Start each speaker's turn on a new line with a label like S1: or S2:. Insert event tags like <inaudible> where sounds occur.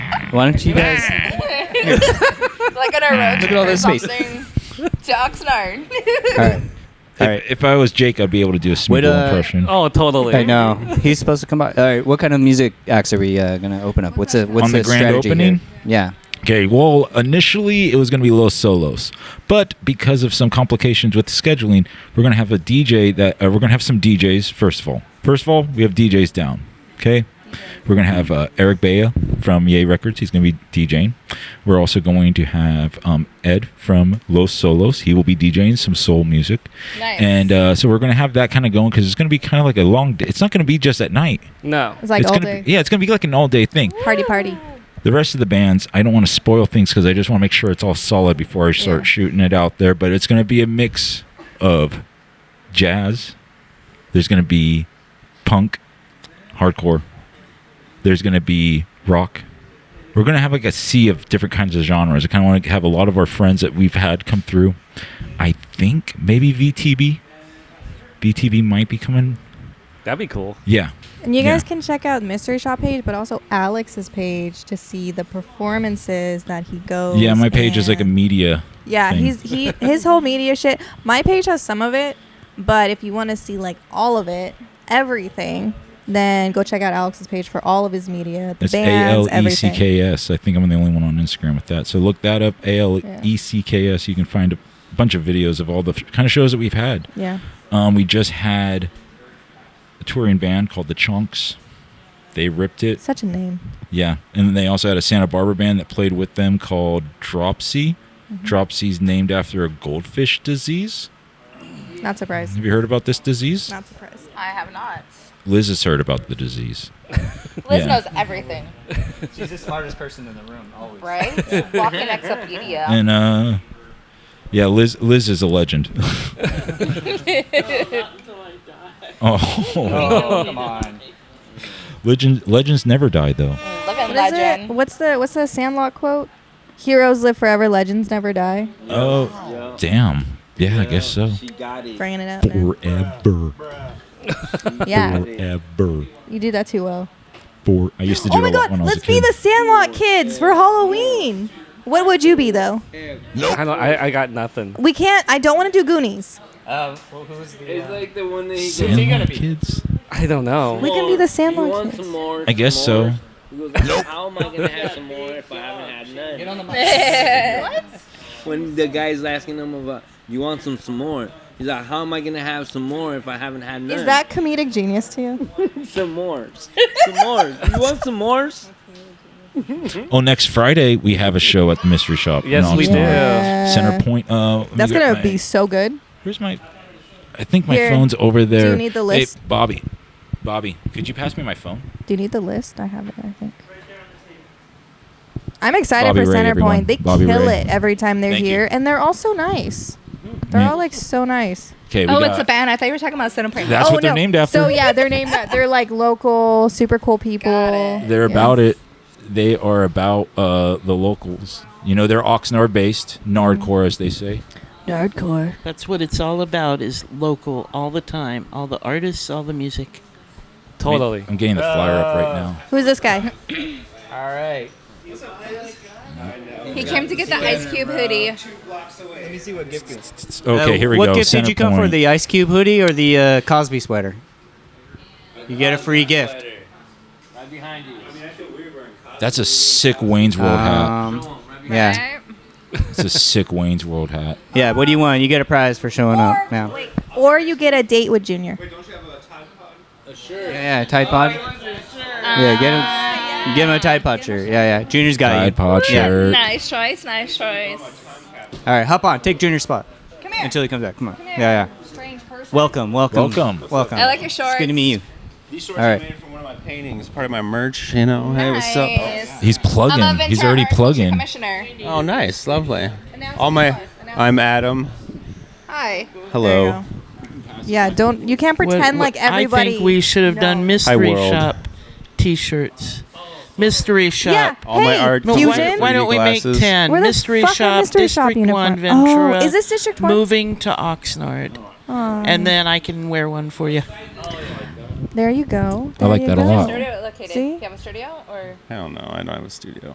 S1: Why don't you guys?
S2: <laughs> like on a road
S1: Look
S2: trip
S1: at all
S2: or
S1: this space.
S2: something to
S3: <laughs>
S2: Oxnard.
S1: All right. All
S4: If,
S1: right.
S4: if I was Jake, I'd be able to do a
S1: Wait,
S4: Smeagol
S1: uh,
S4: impression.
S5: Oh, totally.
S1: I know he's supposed to come by. All right, what kind of music acts are we uh, gonna open up? What's the what's
S4: On the grand
S1: strategy here?
S4: opening?
S1: Yeah.
S4: Okay, well, initially it was going to be Los Solos, but because of some complications with scheduling, we're going to have a DJ that uh, we're going to have some DJs. First of all, first of all, we have DJs down. Okay, we're going to have uh, Eric Baya from Yay Records. He's going to be DJing. We're also going to have um, Ed from Los Solos. He will be DJing some soul music,
S2: Nice.
S4: and uh, so we're going to have that kind of going because it's going to be kind of like a long. Day. It's not going to be just at night.
S5: No.
S3: It's like
S4: it's
S3: all
S4: gonna
S3: day.
S4: Be, yeah, it's going to be like an all day thing.
S3: Party, party.
S4: The rest of the bands, I don't want to spoil things because I just want to make sure it's all solid before I start
S3: Yeah.
S4: shooting it out there. But it's going to be a mix of jazz. There's going to be punk, hardcore. There's going to be rock. We're going to have like a sea of different kinds of genres. I kind of want to have a lot of our friends that we've had come through. I think maybe VTB. VTB might be coming.
S5: That'd be cool.
S4: Yeah.
S3: And you
S4: Yeah.
S3: guys can check out Mystery Shop page, but also Alex's page to see the performances that he goes.
S4: Yeah, my page is like a
S3: and-
S4: media.
S3: Yeah,
S4: thing.
S3: he's he his whole media shit. My page has some of it, but if you want to see like all of it, everything, then go check out Alex's page for all of his media, the
S4: It's A
S3: bands,
S4: L E C
S3: everything.
S4: K S. I think I'm the only one on Instagram with that. So look that up. A L E C K S. You can find a bunch of videos of all the f- kind of shows that we've had.
S3: Yeah.
S4: Um, we just had a touring band called the Chunks. They ripped it.
S3: Such a name.
S4: Yeah. And then they also had a Santa Barbara band that played with them called Dropsy. Dropsy's named after a goldfish disease.
S3: Not surprised.
S4: Have you heard about this disease?
S3: Not surprised.
S2: I have not.
S4: Liz has heard about the disease.
S2: Liz
S4: Yeah.
S2: knows everything,
S1: She's the smartest person in the room, always.
S2: right? Walking encyclopedia.
S4: And uh, yeah, Liz Liz is a legend. <laughs> oh,
S1: Oh,
S2: <laughs>
S1: come on.
S4: legend legends never die though.
S2: Living
S3: What is it?
S2: legend.
S3: What's the what's the Sandlot quote? Heroes live forever, legends never die.
S4: Oh, damn. Yeah, I guess so.
S6: She got it.
S3: Bringing it up. now.
S4: Forever,
S3: Yeah,
S4: forever,
S3: you do that too well.
S4: for. I used to do
S3: Oh my
S4: that
S3: god,
S4: when I was
S3: let's
S4: a
S3: be
S4: kid.
S3: the Sandlot kids for Halloween. What would you be though?
S5: I, don't, I, I got nothing.
S3: We can't. I don't want to do Goonies.
S1: Um, well, who's the?
S6: It's like the one that he goes,
S1: he gonna
S4: Sandlot
S1: be?
S4: kids.
S5: I don't know.
S3: We can be the Sandlot
S6: You want
S3: kids.
S6: some more?
S4: I guess
S6: some
S4: so.
S6: more?" He goes, How am I gonna have some more if I haven't had none?
S3: <laughs>
S6: When the guy's asking him about, you want some some more? He's like, how am I gonna have some more if I haven't had none?
S3: Is that comedic genius to you?
S6: some more? Some more? You want some more?
S4: Oh, next Friday we have a show at the mystery shop. in
S5: Yes, we
S4: Oxnard.
S5: do.
S4: Center Point. Uh, let me
S3: That's
S4: get
S3: gonna
S4: my-
S3: be so good.
S4: Where's my? I think my
S3: Here.
S4: phone's over there.
S3: need the
S4: Hey,
S3: list?
S4: Bobby. Bobby, could you pass me my phone?
S3: Do you need the list? I have it. I think. I'm excited
S4: Bobby
S3: for
S4: Ray, everyone.
S3: Centerpoint. They
S4: Bobby
S3: kill
S4: Ray.
S3: it every time they're
S4: Thank you.
S3: here, and they're all so nice. They're
S4: Yeah.
S3: all like so nice.
S4: Okay.
S2: Oh, it's a band. I thought you were talking about Cinnamon.
S4: That's
S3: oh
S4: what they're
S3: no.
S4: named after.
S3: So yeah, they're named. that- They're like local, super cool people.
S2: Got it.
S4: They're
S3: Yeah.
S4: about it. They are about uh, the locals. You know, they're Oxnard based, Nardcore, as they say.
S3: Nerdcore.
S7: That's what it's all about is local all the time. All the artists, all the music.
S5: Totally.
S4: I'm getting the flyer up
S3: Uh,
S4: right now.
S3: Who's this guy?
S1: All right.
S2: He came to get the Ice Cube hoodie.
S1: Let me see what gift. gives.
S4: Okay, here we
S1: Uh, what
S4: go.
S1: What gift did
S4: Center
S1: you come for?
S4: point.
S1: The ice cube hoodie or the uh, Cosby sweater? You get a free gift.
S6: Right behind you.
S4: That's a sick Wayne's World
S3: Uh,
S4: hat.
S1: Um, yeah.
S2: Right?
S4: It's a sick Wayne's World hat.
S1: Yeah. What do you want? You get a prize for showing up now.
S2: Wait,
S3: Or you get a date with Junior.
S1: Yeah, yeah, Tide Pod.
S2: Uh,
S1: Yeah, get him, get him a Tide Pod shirt. Yeah, <laughs> yeah. Junior's got
S4: Tide
S1: you.
S4: Pod
S1: Yeah.
S4: shirt.
S2: nice choice, nice choice.
S1: All right, hop on. Take Junior's spot
S2: Come here.
S1: until he comes back. Come on.
S2: Come here.
S1: Yeah, yeah.
S2: Strange person.
S1: Welcome, welcome,
S4: Welcome.
S1: welcome.
S2: I like your shorts.
S1: It's good to meet you.
S6: These shorts
S1: All right.
S6: are made from one of my paintings, part of my merch. You know, hey, what's up?
S2: Nice.
S4: He's plugging.
S2: I'm a
S4: He's
S2: Ventura
S4: already
S2: Arts
S4: plugging.
S2: Commissioner.
S6: Oh, nice, lovely.
S2: Announce
S6: All my,
S2: yourself. Announce-
S6: I'm Adam.
S2: Hi.
S3: There you
S6: Hello.
S3: go. Yeah, don't you can't
S7: Well,
S3: pretend
S7: well,
S3: like everybody.
S7: I think we should have done
S3: knows.
S7: mystery
S6: world.
S7: shop T-shirts. Mystery shop.
S3: Yeah.
S6: All
S3: hey,
S6: my art
S7: Well, why,
S3: Fusion.
S7: why don't we make
S6: Glasses.
S7: ten?
S3: Where the
S7: mystery
S3: fuck are
S7: shop,
S3: mystery shop
S7: District One,
S3: uniform? Oh,
S7: Ventura.
S3: is this District One? Oh, Mm.
S7: Moving to Oxnard, and then I can wear one for you.
S3: There you go.
S4: I like
S3: There you
S4: that a
S3: go.
S4: lot.
S2: Studio located.
S3: See?
S2: Do you have a studio or?
S6: I don't know. I don't have a studio.